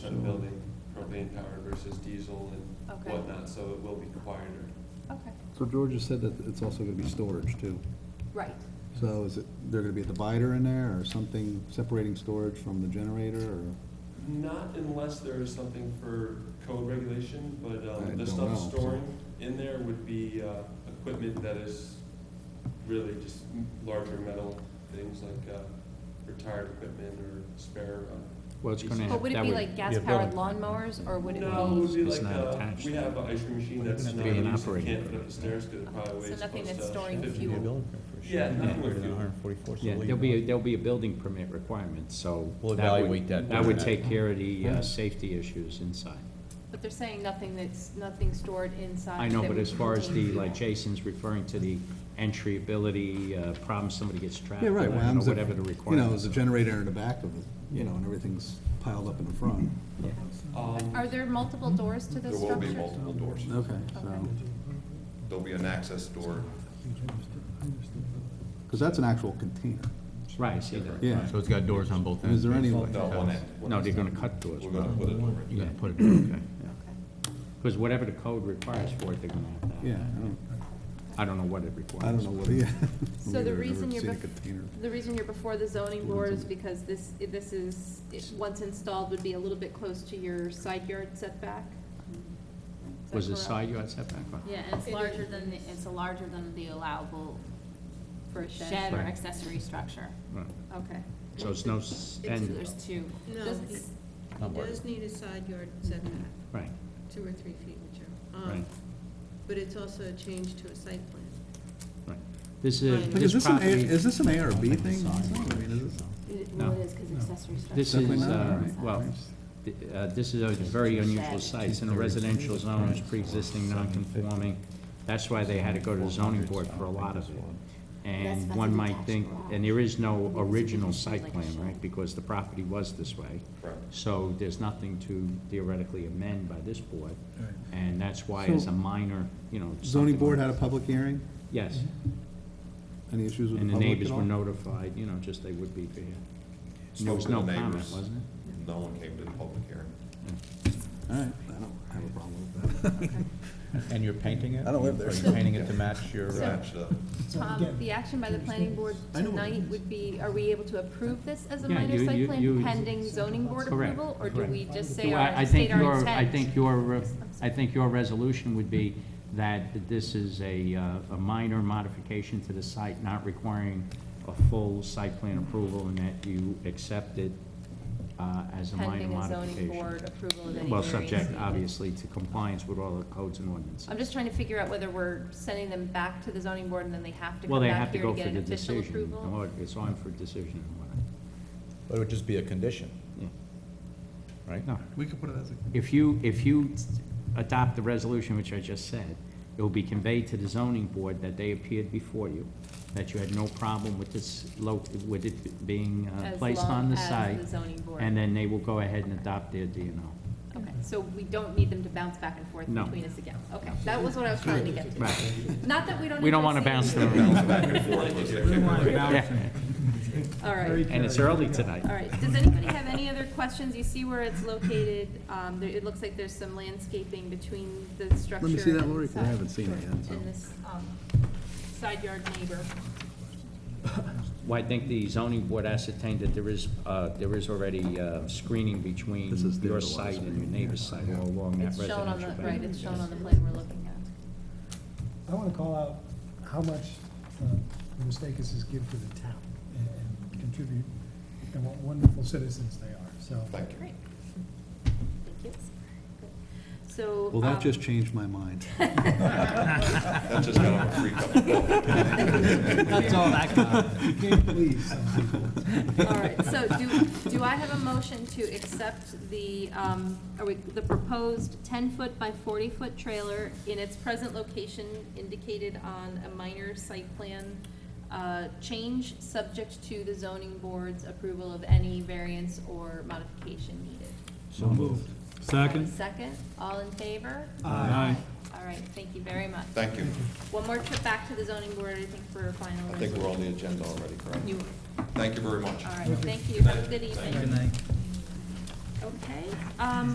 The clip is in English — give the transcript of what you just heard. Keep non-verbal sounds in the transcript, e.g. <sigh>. on building propane powered versus diesel and Okay. whatnot, so it will be quieter. Okay, So Georgia said that it's also gonna be storage too. right. So is it, there gonna be a divider in there or something separating storage from the generator or? Not unless there is something for code regulation, but I um, the don't stuff know, so- storing in there would be uh, equipment that is really just m- larger metal things like uh, retired equipment or spare. uh, Well, it's gonna Yeah, have. But would it that be like a gas-powered building. lawnmowers, or would it be? No, it would be It's like, not uh, attached. we have an ice cream machine Wouldn't that's have to not be used, an you operating can't put up equipment. the stairs because it probably So weighs nothing close that's to storing 50 fuel. Yeah, nothing with fuel. Yeah, there'll be, a- there'll be a building permit requirement, so. We'll that would- evaluate that That would permit. take care of the, Yeah. uh, safety issues inside. But they're saying nothing that's, nothing stored Uh, inside. I know, that but would as far as the, contain like fuel. Jason's referring to the entry ability, uh, problems, somebody gets trapped, Yeah, in it, right, or well, I'm- whatever the You know, there's requirements. a are. generator in the back of it, you know, and everything's piled up in the front. Yeah. Um, Are there multiple doors to this There structure? will be multiple doors. Okay, so, Okay. There'll be an access door. cause that's an actual container. Right, see that? Yeah. So it's got doors on both ends? Is there any- basically. No, one end. No, they're gonna cut doors, We're gonna put a door in. You're gonna put it, okay. Okay. because whatever the code requires for it, they're gonna have to. have Yeah, I that. don't, I don't know what it I don't requires. know what, yeah. So the reason you're <laughs> I've never seen a bef- container. The reason you're before the zoning board is because this, this is, it- once installed, would be a little bit close to your side yard setback? Is that Was it correct? side yard setback? or- Yeah, and it's larger than, the- it's larger than the allowable For a shed or Right. accessory structure. Right. Okay. So it's no, s- So and, There's two. No, Does- it Not it worth does need a side yard setback, right, two or three feet, whichever. Um, right, But it's also a change to a site plan. right. This Like, is, Like, is this this an A, property, is this an A or B thing? I mean, is this? No. Well, it is, because accessory structure. This Definitely is, not, uh, all right. well, th- uh, this is a very unusual site, it's in a residential zone, it's pre-existing, non-conforming. That's why they had to go to the zoning board for a lot of it. That's And about one the might detached think, garage. and there is no original Like a site plan, shed. right, because the property was this way. Correct. So there's nothing to theoretically amend by this board, Right. and that's why it's So- a minor, you know. Zoning something board like- had a public hearing? Yes, Any issues with and the the public at neighbors were all? notified, you know, just they would be for you. And There was Spoke no to the comment, neighbors. wasn't No one came to the public hearing. All right, I don't have a problem with that. <laughs> And you're painting it? I don't live there. Are you painting it to match your, uh, Match the, Tom, the action by the planning board I know what it tonight is. would be, are we able to approve this as a Yeah, minor you- you- site you- plan pending zoning board Correct, approval? Or do correct. we just say Do our, I, I think state our your, I intent? think your, uh, I'm I sorry. think your resolution would be that this is a, uh, a minor modification to the site, not requiring a full site plan approval, and that you accept it, uh, as a minor Pending a modification. zoning board approval of any Well, variance subject, needed. obviously, to compliance with all the codes and ordinances. I'm just trying to figure out whether we're sending them back to the zoning board and then they have to Well, come they back have to here to go get for an the official decision, approval? or it's on for decision and whatnot. it would just be a condition, Yeah. right? No, We could put it as a If you, if you adopt the resolution which I just said, it will be conveyed to the zoning board that they appeared before you, that you had no problem with this, lo- with it being uh, As placed long on the as site. the zoning board. And then they will go ahead and adopt their DNO. Okay, so we don't need them to bounce back and forth No. between us again? Okay, that was what I was trying to get to. Right. Not that we don't. We don't need wanna bounce see- them <laughs> bounce back and forth, let's take it. Yeah, All right. And it's early tonight. All right, does anybody have any other questions? You see where it's located, um, there, it looks like there's some landscaping between the structure. Let me see that, and Lori, 'cause I side- haven't seen it yet, so. And this, um, side yard neighbor. Well, I think the zoning board ascertained that there is, uh, there is already uh, screening between This is their your lot site and your screen, neighbor's yeah. site all along that It's residential shown on the, boundary. right, it's shown on the plan we're looking at. I want to call out how much uh, the Mistakes give to the town and- and contribute, and what wonderful citizens they are, so. thank you. Great. Thank you. So. Well, that um, just changed my mind. <laughs> That just got him a free cup of coffee. That's all that got. You can't please some people. <laughs> All right, so do, do I have a motion to accept the, um, are we, the proposed ten-foot by forty-foot trailer in its present location indicated on a minor site plan, uh, change, subject to the zoning board's approval of any variance or modification needed? So moved. Second, all in favor? Aye. All right, thank you very much. Thank you. One more trip back to the zoning board, I think, for a final I resolution. think we're on the agenda already, correct? You- Thank you very much. All right, thank you, have a good evening. Okay, um,